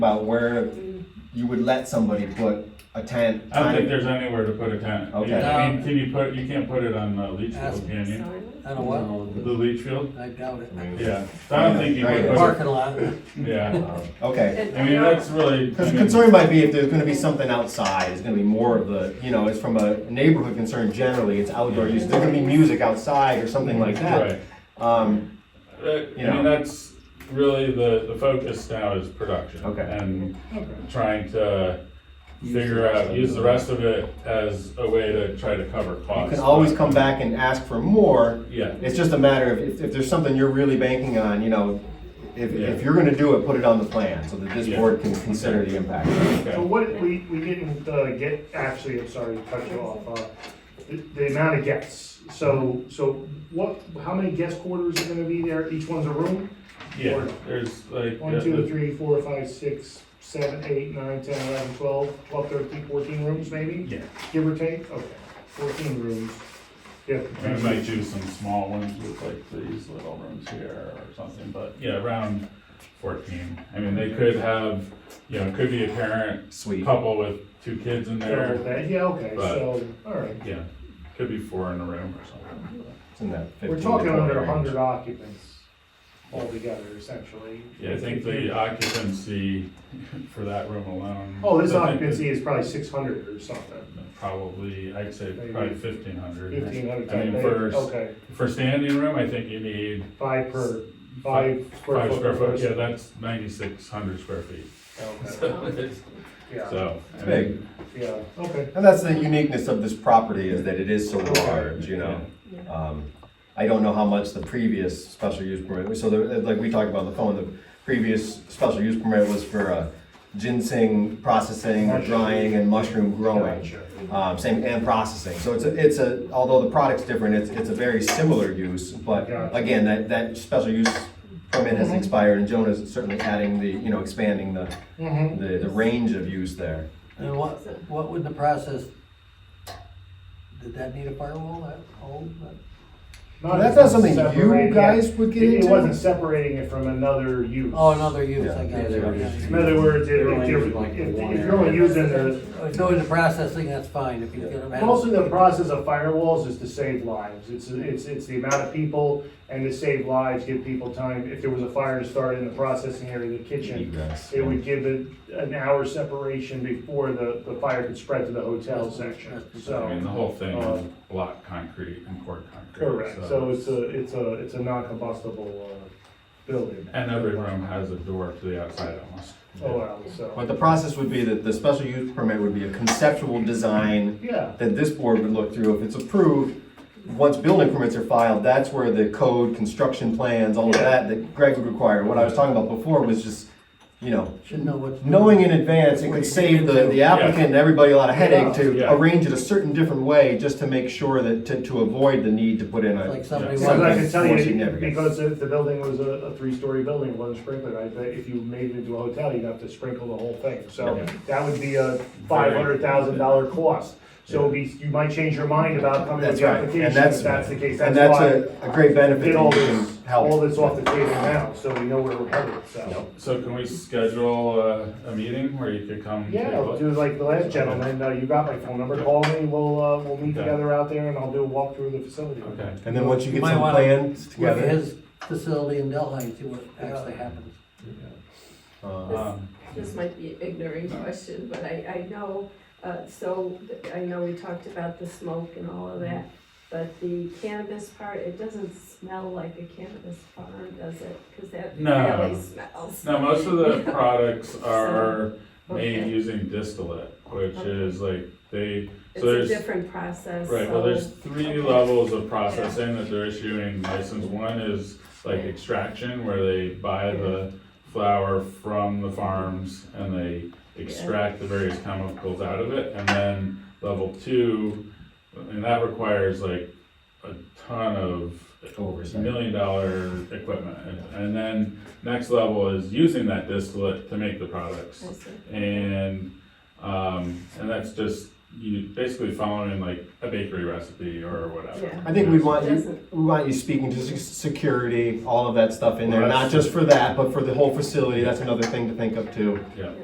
about where you would let somebody put a tent. I don't think there's anywhere to put a tent. Okay. You- I mean, can you put, you can't put it on the leach Ask- field, can you? I don't know The leach field? what, I doubt it. Yeah, So I don't think you Right. could put Parking lot, it, yeah. Okay, I mean, that's really. because the concern might be if there's gonna be something outside, it's gonna be more of the, you know, it's from a neighborhood concern generally, it's outdoor use, there's gonna be music outside or something like that. Right. Um, Uh, You I know. mean, that's really the, the focus now is production. Okay. And trying to figure out, use the rest of it as a way to try to cover you costs. can always come back and ask for more, Yeah, it's just a matter of, if, if there's something you're really banking on, you know, if, if Yeah. you're gonna do it, put it on the plan, so that this Yeah. board can consider the impact. So okay. what, we, we didn't uh, get, actually, I'm sorry to cut you off, uh, the, the amount of guests. So, so what, how many guest quarters are gonna be there? Each one's a room? Yeah, there's like. yeah, One, two, three, four, five, six, seven, eight, nine, ten, eleven, twelve, twelve, thirteen, fourteen rooms maybe? Yeah, Give or take? Okay, fourteen rooms. Yeah. we might do some small ones with like these little rooms here or something, but yeah, around fourteen. I mean, they could have, you know, it could be a parent Sweet. couple with two kids in Double there. that, yeah, okay, But- so, all right. Yeah, could be four in a room or something. It's in that 15 We're to talking 20 under range. hundred occupants altogether essentially. Yeah, I think the occupancy for that room alone. Oh, this I think occupancy is probably six hundred or something. that Probably, I'd say probably fifteen hundred. Fifteen hundred I times mean, eight, for, okay, for standing room, I think you need five per, five square five foot. square per foot, yeah, person. that's ninety-six hundred square feet. Okay. So, it's- Yeah, so, I big. mean, yeah, okay. And that's the uniqueness of this property is that it is so large, you know? Um, I don't know how much the previous special use permit, so the, like we talked about on the phone, the previous special use permit was for uh, ginseng processing, or drying and mushroom growing. Gotcha. Um, same, and processing, so it's a, it's a, although the product's different, it's, it's a very similar use, but Gotcha. Mm-hmm. again, that, that special use permit has expired and Jonah's certainly adding the, you know, expanding the, Mm-hmm. Mhm. the, the range of use there. and what, what would the process, did that need a firewall, that hole, that? Well, that's not something you separating- guys would get It- into? It wasn't separating it from another use. Oh, another use, Yeah. I Yeah, got they were just- it. In other words, if, They're if only you're, using, like, if if one you're only area. using the, If go into processing, that's fine, if you get them. Most of the process of firewalls is to save lives. It's, it's, it's the amount of people and to save lives, give people time. If there was a fire to start in the processing area, the kitchen, Egress, it yeah. would give it an hour separation before the, the fire could spread to the hotel section, I mean, the so. whole thing Uh, is block concrete and poured concrete. Correct, so it's a, it's a, it's a non-combustible, uh, building. And every room has a door to the outside almost. Oh, wow, so, But the process would be that the special use permit would be a conceptual design yeah, that this board would look through. If it's approved, once building permits are filed, that's where the code, construction plans, all of that, that Greg would require. What I was talking about before was just, you know, Should know what's. knowing in advance, it could save the, the applicant and everybody a lot of headache to Yeah. arrange it a certain different way, just to make sure that, to, to avoid the need to put in a, Like Yeah. somebody because I wanted, can tell More you, significant. because if the building was a, a three-story building, it wasn't sprinkled, I bet if you made it into a hotel, you'd have to sprinkle the whole thing. So that would be a five hundred thousand dollar cost. So it'd be- you might change your mind about coming with that's the right. application, And if that's, that's the case, and that's that's why. a, a great benefit Get that all you can this, help. all this off the table now, so we know where we're headed, so. So can we schedule a, a meeting where you could come? take a Yeah, look? do like the last gentleman, uh, you got my phone number, call me, we'll, uh, we'll meet Okay. together out there and I'll do a walk through the facility. Okay. And then once you You get might some wanna plans with together. his facility in Delhi, and see what actually happens. uh, Um, This might be an ignorant question, but I, I know, uh, so, I know we talked about the smoke and all of that, but the cannabis part, it doesn't smell like a cannabis farm, does it? Because that No. really smells. Now, most of the products are made Okay. using distillate, which Okay. is like they, so It's a there's, different process, right, well, there's so- three levels of processing that they're issuing license. One is like extraction, where they buy the flower from the farms and they extract the various chemicals out of it. And then level two, and that requires like a ton of Oversight. million dollar equipment. And- And then next level is using that distillate to make the products. I see. And, um, and that's just you basically following like a bakery recipe or whatever. Yeah. I think we want you, Doesn't- we want you speaking to sec- security, all of that stuff in there, Well, not that's- just for that, but for the whole facility, that's another thing to think of too. Yeah.